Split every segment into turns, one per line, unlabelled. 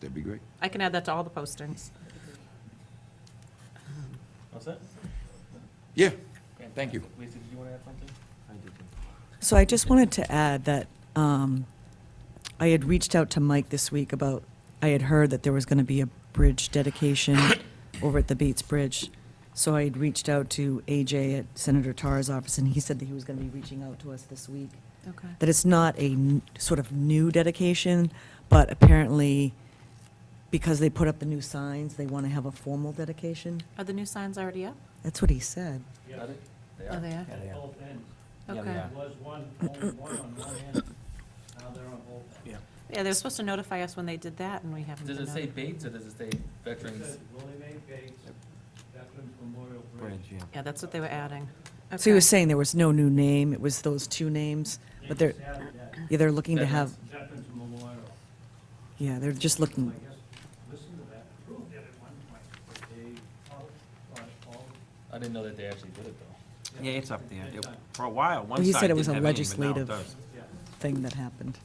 That'd be great.
I can add that to all the postings.
What's that?
Yeah, Thank you.
Lisa, did you want to add something?
So I just wanted to add that um, I had reached out to Mike this week about, I had heard that there was going to be a bridge dedication over at the Bates Bridge. So I had reached out to AJ at Senator Tarr's office, and he said that he was going to be reaching out to us this week.
Okay.
That it's not a n- sort of new dedication, but apparently, because they put up the new signs, they want to have a formal dedication.
Are the new signs already up?
That's what he said.
Got it? They
Oh,
are?
they are?
At both ends.
Okay.
There was one, only one on one end, now they're on both ends.
Yeah.
Yeah, they're supposed to notify us when they did that, and we haven't been
Does it say
notified.
Bates or does it say
It
Veterans?
says Willie Mae Bates, Veterans Memorial Bridge.
Bridge, yeah.
Yeah, that's what they were adding.
So he was
Okay.
saying there was no new name, it was those two names,
They
but they're,
just added that,
yeah, they're looking to have,
Veterans Memorial.
yeah, they're just
I
looking,
guess, listen to that, proved it at one point, but they, all, all,
I didn't know that they actually did it though.
Yeah, it's up there. It- For a while, one
Well, he
side
said it
didn't
was a
have any, but now it
legislative-
does.
yeah.
thing that happened.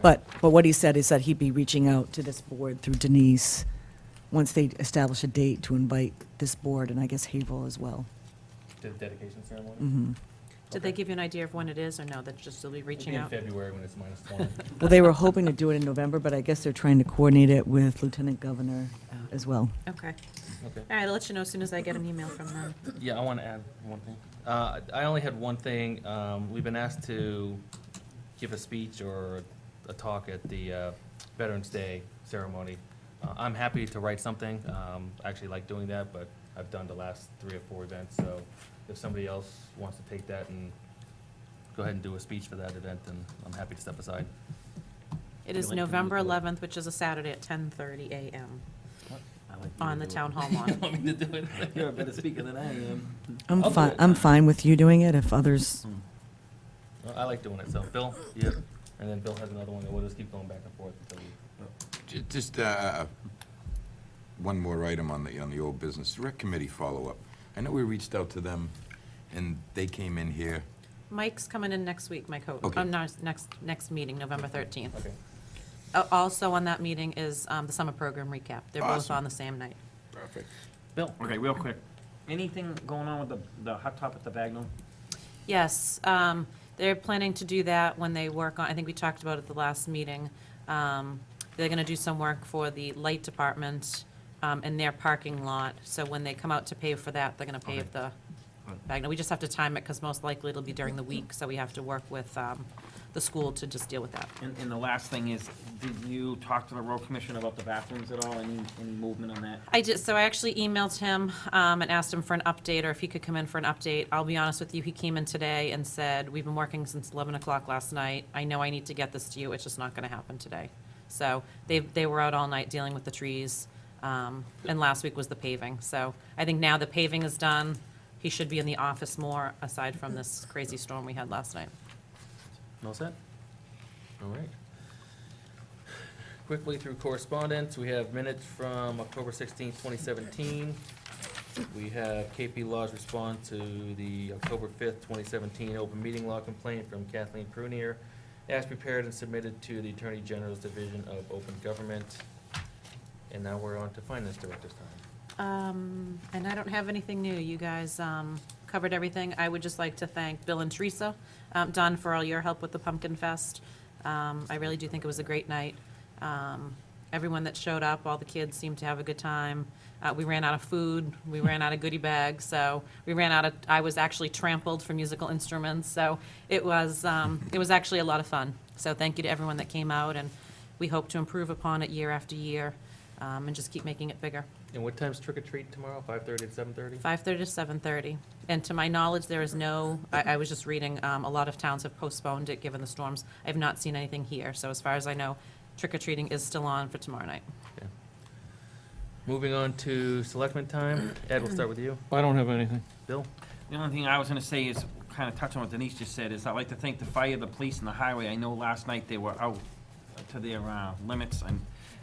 But, but what he said is that he'd be reaching out to this board through Denise, once they establish a date to invite this board, and I guess Havel as well.
The dedication ceremony?
Mm-hmm.
Mhm.
Did they give you an idea of when it is, or no, that's just they'll be
It'll be
reaching out?
In February when it's minus twenty.
Well, they were hoping to do it in November, but I guess they're trying to coordinate it with Lieutenant Governor as well.
Okay.
Okay.
All right, I'll let you know as soon as I get an email from them.
Yeah, I want to add one thing. Uh, I only had one thing. Um, We've been asked to give a speech or a talk at the uh, Veterans Day ceremony. Uh, I'm happy to write something. Um, I actually like doing that, but I've done the last three or four events, so if somebody else wants to take that and go ahead and do a speech for that event, then I'm happy to step aside.
It
You
is
like to
November
meet the-
11th, which is a Saturday at 10:30 a.m.
I like
on the
you to do it.
town hall lawn.
Want me to do it?
You're a better speaker than I am.
I'm
I'll do
fine,
it.
I'm fine with you doing it if others,
Hmm.
Well, I like doing it, so Bill, yeah, and then Bill has another one, and we'll just keep going back and forth until we,
Ju- Just uh, one more item on the, on the old business, rec committee follow-up. I know we reached out to them, and they came in here.
Mike's coming in next week, Mike Houghton,
Okay.
um, no, next, next meeting, November 13th.
okay.
Uh, Also on that meeting is um, the summer program recap. They're both
Awesome.
on the same night.
Perfect.
Bill, okay, real quick. Anything going on with the, the hot top at the Bagnell?
Yes, um, they're planning to do that when they work on, I think we talked about it at the last meeting. Um, They're gonna do some work for the light department um, in their parking lot. So when they come out to pave for that, they're gonna pave the, Bagnell. we just have to time it, because most likely it'll be during the week, so we have to work with um, the school to just deal with that.
And, and the last thing is, did you talk to the road commission about the bathrooms at all? Any, any movement on that?
I did, so I actually emailed him um, and asked him for an update, or if he could come in for an update. I'll be honest with you, he came in today and said, we've been working since 11 o'clock last night. I know I need to get this to you, it's just not going to happen today. So they, they were out all night dealing with the trees, um, and last week was the paving. So I think now the paving is done, he should be in the office more, aside from this crazy storm we had last night.
All set? All right. Quickly through correspondence, we have minutes from October sixteenth, twenty seventeen. We have KP Law's response to the October fifth, twenty seventeen open meeting law complaint from Kathleen Prunier as prepared and submitted to the Attorney General's Division of Open Government. And now we're on to Finance Director's time.
Um, and I don't have anything new. You guys, um, covered everything. I would just like to thank Bill and Teresa, um, Don, for all your help with the Pumpkin Fest. Um, I really do think it was a great night. Um, everyone that showed up, all the kids seemed to have a good time. Uh, we ran out of food, we ran out of goodie bags, so we ran out of, I was actually trampled for musical instruments, so it was, um, it was actually a lot of fun. So thank you to everyone that came out, and we hope to improve upon it year after year, um, and just keep making it bigger.
And what time's trick or treat tomorrow? Five thirty to seven thirty?
5:30 to 7:30. And to my knowledge, there is no, I, I was just reading, um, a lot of towns have postponed it, given the storms. I have not seen anything here, so as far as I know, trick or treating is still on for tomorrow night.
Moving on to selectmen time. Ed, we'll start with you.
I don't have anything.
Bill?
The only thing I was gonna say is, kinda touch on what Denise just said, is I'd like to thank the fire, the police, and the highway. I know last night they were out to their, uh, limits, and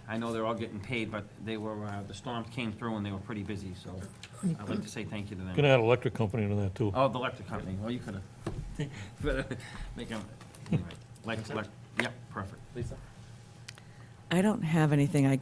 I know they're all getting paid, but they were, uh, the storms came through and they were pretty busy, so I'd like to say thank you to
Could
them.
add electric company to that, too.
Oh, the electric company, well, you could've, but, make them, anyway, like, like, yep, perfect.
Lisa?
I don't have anything, I